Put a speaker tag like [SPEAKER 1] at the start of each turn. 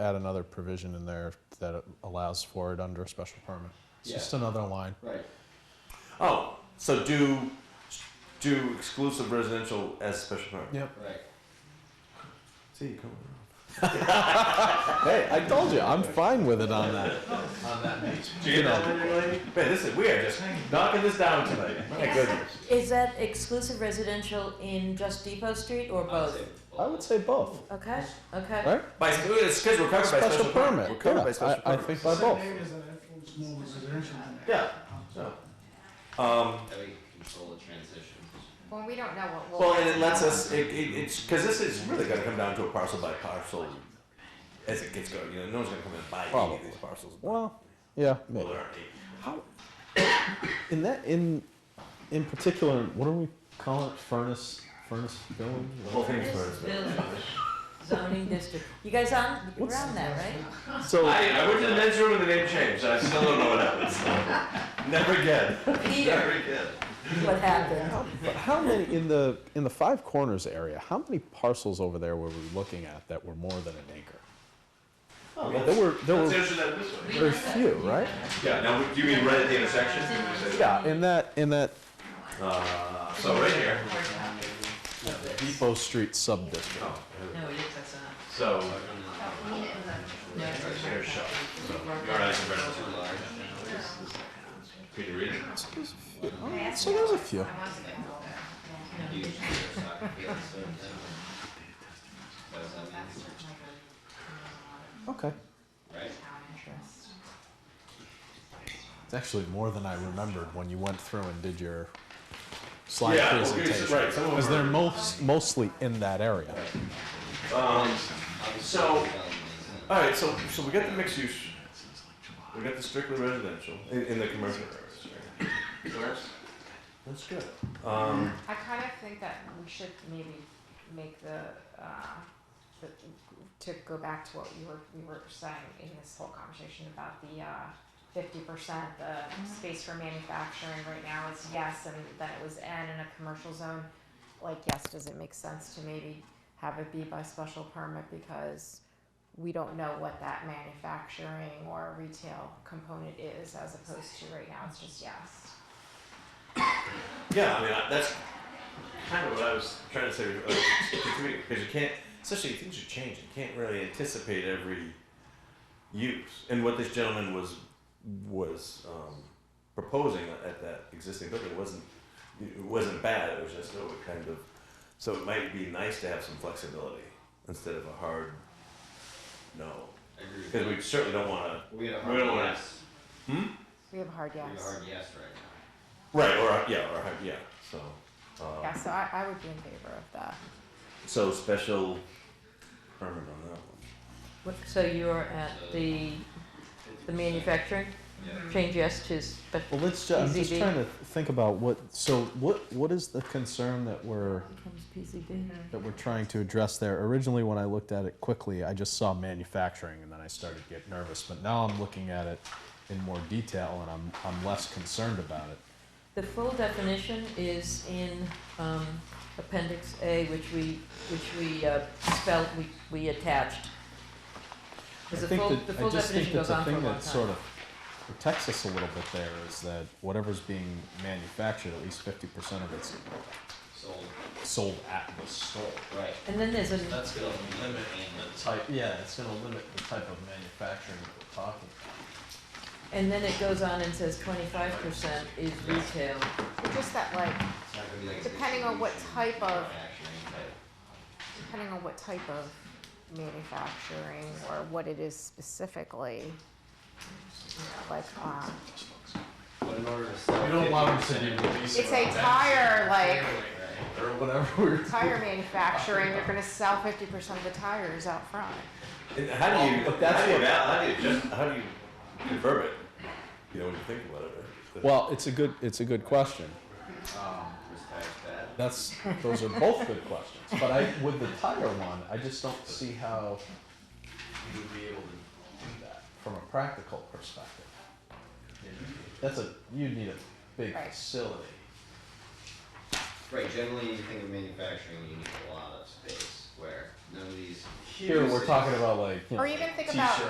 [SPEAKER 1] add another provision in there that allows for it under a special permit. It's just another line.
[SPEAKER 2] Right.
[SPEAKER 3] Oh, so do do exclusive residential as special permit.
[SPEAKER 1] Yep.
[SPEAKER 2] Right.
[SPEAKER 3] See, you come.
[SPEAKER 1] Hey, I told you, I'm fine with it on that.
[SPEAKER 2] On that page.
[SPEAKER 3] You know, man, this is we are just knocking this down tonight. My goodness.
[SPEAKER 4] Is that exclusive residential in just Depot Street or
[SPEAKER 5] Oh.
[SPEAKER 4] both?
[SPEAKER 2] oh,
[SPEAKER 1] I would say both,
[SPEAKER 4] Okay, okay.
[SPEAKER 1] right?
[SPEAKER 3] By it's because we're covered by
[SPEAKER 1] Special
[SPEAKER 3] special
[SPEAKER 1] permit,
[SPEAKER 3] We're covered
[SPEAKER 1] yeah,
[SPEAKER 3] by special
[SPEAKER 1] I, I
[SPEAKER 3] permit.
[SPEAKER 1] think by both.
[SPEAKER 3] yeah. So, um,
[SPEAKER 2] That we control the transition.
[SPEAKER 5] Well, we don't know what will.
[SPEAKER 3] well, and it lets us. It, it, it's because this is really going to come down to a parcel by parcel as it gets going. You know, no one's going to come in and buy any
[SPEAKER 1] Probably.
[SPEAKER 3] of these parcels.
[SPEAKER 1] Well, yeah,
[SPEAKER 3] well,
[SPEAKER 1] maybe.
[SPEAKER 3] there aren't any.
[SPEAKER 1] How, in that, in, in particular, what do we call it? Furnace, furnace building?
[SPEAKER 3] The whole thing's
[SPEAKER 4] Furnace
[SPEAKER 3] for
[SPEAKER 4] Village Zoning district. You guys on, you're
[SPEAKER 1] What's-
[SPEAKER 4] on that, right?
[SPEAKER 1] So,
[SPEAKER 3] I, I went to the men's room and the name changed. I still don't know what happened. so. Never again.
[SPEAKER 4] Peter,
[SPEAKER 3] Never again.
[SPEAKER 4] what happened?
[SPEAKER 1] but how many, in the, in the Five Corners area, how many parcels over there were we looking at that were more than an acre?
[SPEAKER 3] Oh,
[SPEAKER 1] There were, there were
[SPEAKER 3] answer that this way.
[SPEAKER 1] very few, right?
[SPEAKER 3] Yeah, now, do you mean right at the intersection?
[SPEAKER 1] Yeah, in that, in that
[SPEAKER 3] Uh, so right here.
[SPEAKER 1] Depot Street sub-district.
[SPEAKER 3] Oh,
[SPEAKER 4] No, it is, that's not.
[SPEAKER 3] So,
[SPEAKER 4] No,
[SPEAKER 3] right
[SPEAKER 4] it's-
[SPEAKER 3] here, shop. So, you already can read it. Can you read it?
[SPEAKER 1] Oh, So there's a few.
[SPEAKER 2] Huge soccer field, so. That's what that means,
[SPEAKER 1] Okay.
[SPEAKER 2] right?
[SPEAKER 1] It's actually more than I remembered when you went through and did your slide
[SPEAKER 3] Yeah, well, here's-
[SPEAKER 1] presentation.
[SPEAKER 3] right, some of
[SPEAKER 1] Because
[SPEAKER 3] them
[SPEAKER 1] they're most, mostly in that area.
[SPEAKER 3] are- Um,
[SPEAKER 2] Obviously,
[SPEAKER 3] So-
[SPEAKER 2] development is in-
[SPEAKER 3] all right, so, so we got the mixed use. We got the strictly residential in, in the commercial areas. So that's- That's good. Um,
[SPEAKER 5] I kind of think that we should maybe make the, uh, the, to go back to what you were, we were saying in this whole conversation about the, uh, fifty percent, the space for manufacturing right now is yes, and then it was N in a commercial zone. Like, yes, does it make sense to maybe have it be by special permit because we don't know what that manufacturing or retail component is as opposed to right now, it's just yes.
[SPEAKER 3] Yeah, I mean, I, that's kind of what I was trying to say because you can't, especially things are changing, you can't really anticipate every use. And what this gentleman was was um, proposing at that existing building wasn't it wasn't bad. It was just oh, it kind of so it might be nice to have some flexibility instead of a hard no
[SPEAKER 2] I agree with
[SPEAKER 3] because
[SPEAKER 2] you.
[SPEAKER 3] we certainly don't want to
[SPEAKER 2] We had a
[SPEAKER 3] we
[SPEAKER 2] hard
[SPEAKER 3] don't wanna-
[SPEAKER 2] yes,
[SPEAKER 5] We have a hard
[SPEAKER 2] we
[SPEAKER 5] yes.
[SPEAKER 2] have a hard yes right now.
[SPEAKER 3] right or a- yeah or a- yeah so. Um,
[SPEAKER 5] Yeah, so I, I would be in favor of that.
[SPEAKER 3] So special permit on that one.
[SPEAKER 4] What- So you're at the, the manufacturing?
[SPEAKER 2] Yeah.
[SPEAKER 4] Change yes to special.
[SPEAKER 1] Well, let's, ju- I'm just
[SPEAKER 4] PCB.
[SPEAKER 1] trying to think about what, so what, what is the concern that we're,
[SPEAKER 4] Becomes PCB.
[SPEAKER 1] that we're trying to address there? Originally, when I looked at it quickly, I just saw manufacturing and then I started to get nervous. But now I'm looking at it in more detail and I'm, I'm less concerned about it.
[SPEAKER 4] The full definition is in um, Appendix A, which we, which we uh, spelled, we, we attached.
[SPEAKER 1] I
[SPEAKER 4] Because the
[SPEAKER 1] think
[SPEAKER 4] full,
[SPEAKER 1] that-
[SPEAKER 4] the full
[SPEAKER 1] I just think
[SPEAKER 4] definition
[SPEAKER 1] that
[SPEAKER 4] goes
[SPEAKER 1] the
[SPEAKER 4] on for a
[SPEAKER 1] thing
[SPEAKER 4] long time.
[SPEAKER 1] that sort of protects us a little bit there is that whatever's being manufactured, at least fifty percent of it's
[SPEAKER 2] Sold,
[SPEAKER 1] sold at the store.
[SPEAKER 2] right.
[SPEAKER 4] And then there's a,
[SPEAKER 2] That's gonna limit and the
[SPEAKER 1] Type, yeah, it's gonna limit the type of manufacturing that we're talking
[SPEAKER 4] and then it goes on and says twenty-five percent is retail.
[SPEAKER 5] It's just that like,
[SPEAKER 2] It's not gonna be like. a
[SPEAKER 5] Depending on what
[SPEAKER 2] distribution,
[SPEAKER 5] type of-
[SPEAKER 2] manufacturing type.
[SPEAKER 5] depending on what type of manufacturing or what it is specifically, you know, like, um,
[SPEAKER 2] But in order to sell.
[SPEAKER 1] We don't want them
[SPEAKER 2] 50%,
[SPEAKER 1] to be releasing
[SPEAKER 5] it's a tire, like,
[SPEAKER 2] Right.
[SPEAKER 1] Or whatever.
[SPEAKER 5] tire manufacturing, you're gonna sell fifty percent of the tires out front.
[SPEAKER 3] And how do you?
[SPEAKER 1] Well, Oh, but that's
[SPEAKER 3] how do you,
[SPEAKER 1] what-
[SPEAKER 3] val- how do you just? How do you convert it? You know, when you think about it. Right?
[SPEAKER 1] Well, it's a good, it's a good question.
[SPEAKER 2] This tire's bad.
[SPEAKER 1] That's, those are both good questions, but I, with the tire one, I just don't see how you would be able to do that from a practical perspective. That's a, you'd need a big
[SPEAKER 5] Right.
[SPEAKER 1] facility.
[SPEAKER 2] Right, generally, you think of manufacturing, you need a lot of space, where
[SPEAKER 6] none of these.
[SPEAKER 2] Here, we're
[SPEAKER 6] uses.
[SPEAKER 2] talking about like, you
[SPEAKER 1] Or
[SPEAKER 2] know,
[SPEAKER 1] even think about